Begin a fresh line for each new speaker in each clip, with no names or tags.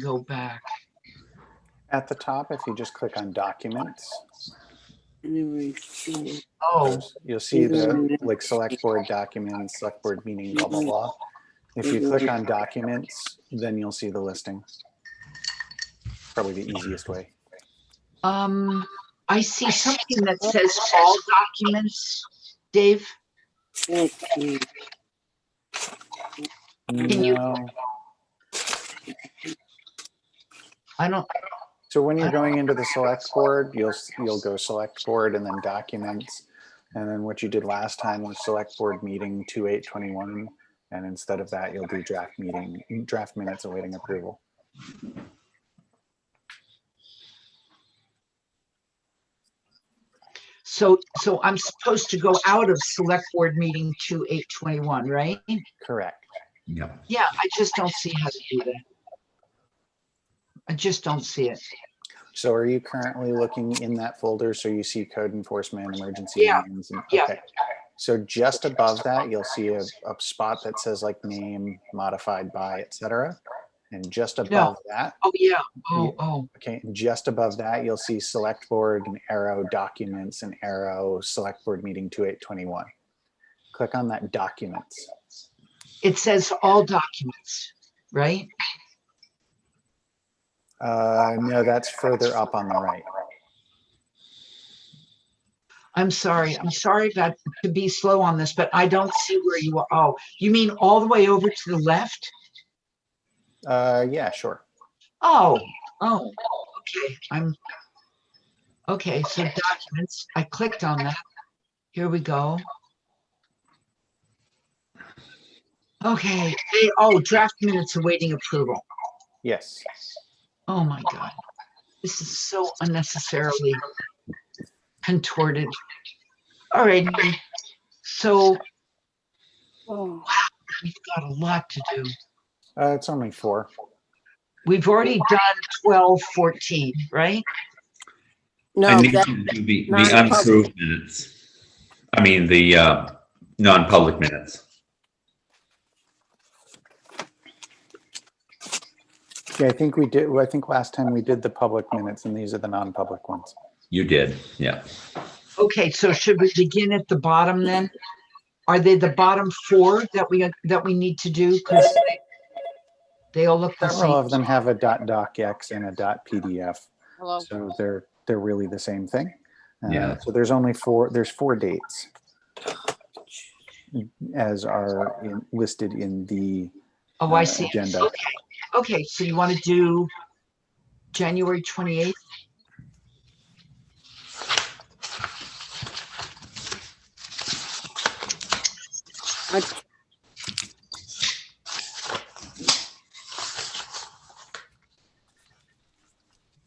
go back.
At the top, if you just click on Documents,
Never
Oh,
you'll see the, like, Select Board Documents, Select Board Meeting, blah, blah, blah. If you click on Documents, then you'll see the listing. Probably the easiest way.
um, I see something that says all documents. Dave,
Okay.
Can you-
No.
I don't,
So when you're going into the select board, you'll, you'll go select board and then documents. And then what you did last time was select board meeting two eight twenty-one. And instead of that, you'll do draft meeting, draft minutes awaiting approval.
so, so I'm supposed to go out of select board meeting to eight twenty-one, right?
Correct.
Yeah.
Yeah, I just don't see how to do that. I just don't see it.
So are you currently looking in that folder? So you see code enforcement, emergency.
Yeah,
meetings, and-
yeah.
okay. So just above that, you'll see a, a spot that says like name modified by, et cetera. And just above that,
Oh, yeah. Oh, oh,
Okay, and just above that, you'll see select board and arrow documents and arrow select board meeting two eight twenty-one. Click on that documents.
it says all documents, right?
Uh, no, that's further up on the right.
I'm sorry. I'm sorry about to be slow on this, but I don't see where you are. Oh, you mean all the way over to the left?
Uh, yeah, sure.
Oh, oh, okay, I'm, okay, so documents, I clicked on that. Here we go. Okay, they, oh, draft minutes awaiting approval.
Yes.
Oh my God. This is so unnecessarily contorted. All right, so
Oh,
we've got a lot to do.
Uh, it's only four.
We've already done twelve fourteen, right?
No,
I need
that,
to do the, the
non-public.
unapproved minutes. I mean, the, uh, non-public minutes.
Yeah, I think we did, I think last time we did the public minutes and these are the non-public ones.
You did, yeah.
Okay, so should we begin at the bottom then? Are they the bottom four that we, that we need to do? 'Cause they- They all look the
Several
same.
of them have a dot docx and a dot PDF.
Hello,
So they're, they're really the same thing. Uh,
Yeah.
So there's only four, there's four dates as are in- listed in the,
Oh, I
uh,
see.
agenda.
Okay, okay, so you want to do January twenty-eighth?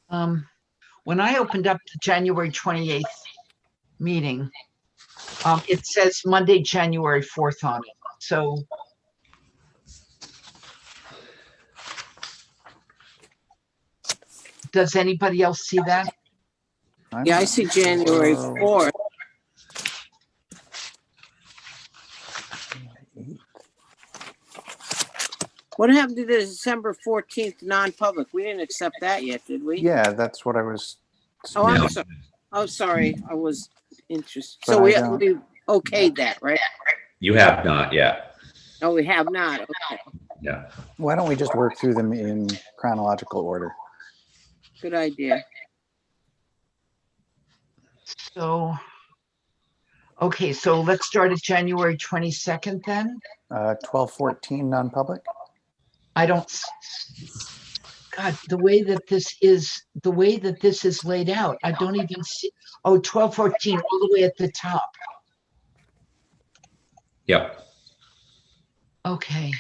Um, when I opened up the January twenty-eighth meeting, um, it says Monday, January fourth on it, so does anybody else see that?
I'm
yeah, I
not
see January
sure.
4th. What happened to the December 14th non-public? We didn't accept that yet, did we?
Yeah, that's what I was.
Oh, I'm
No.
sorry. Oh, sorry, I was interested.
But
So
I
we,
don't-
we okayed that, right?
You have not yet,
No, we have not. Okay,
yeah.
Why don't we just work through them in chronological order?
good idea.
So, okay, so let's start at January 22nd then.
Uh, twelve fourteen non-public?
I don't, s- God, the way that this is, the way that this is laid out, I don't even see, oh, 1214, all the way at the top.
Yep,
Okay.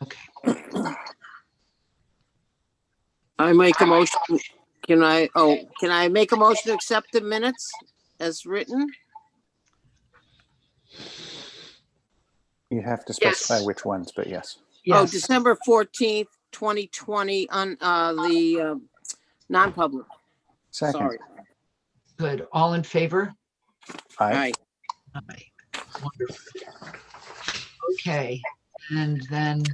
Okay,
I make a motion, can I, oh, can I make a motion to accept the minutes as written? Oh,
You have to
Yes.
specify which ones, but yes.
Oh,
yes,
December 14th, 2020, on, uh, the, um, non-public,
Second,
sorry.
good. All in favor?
I,
Aye.
Aye. Wonderful. Okay, and then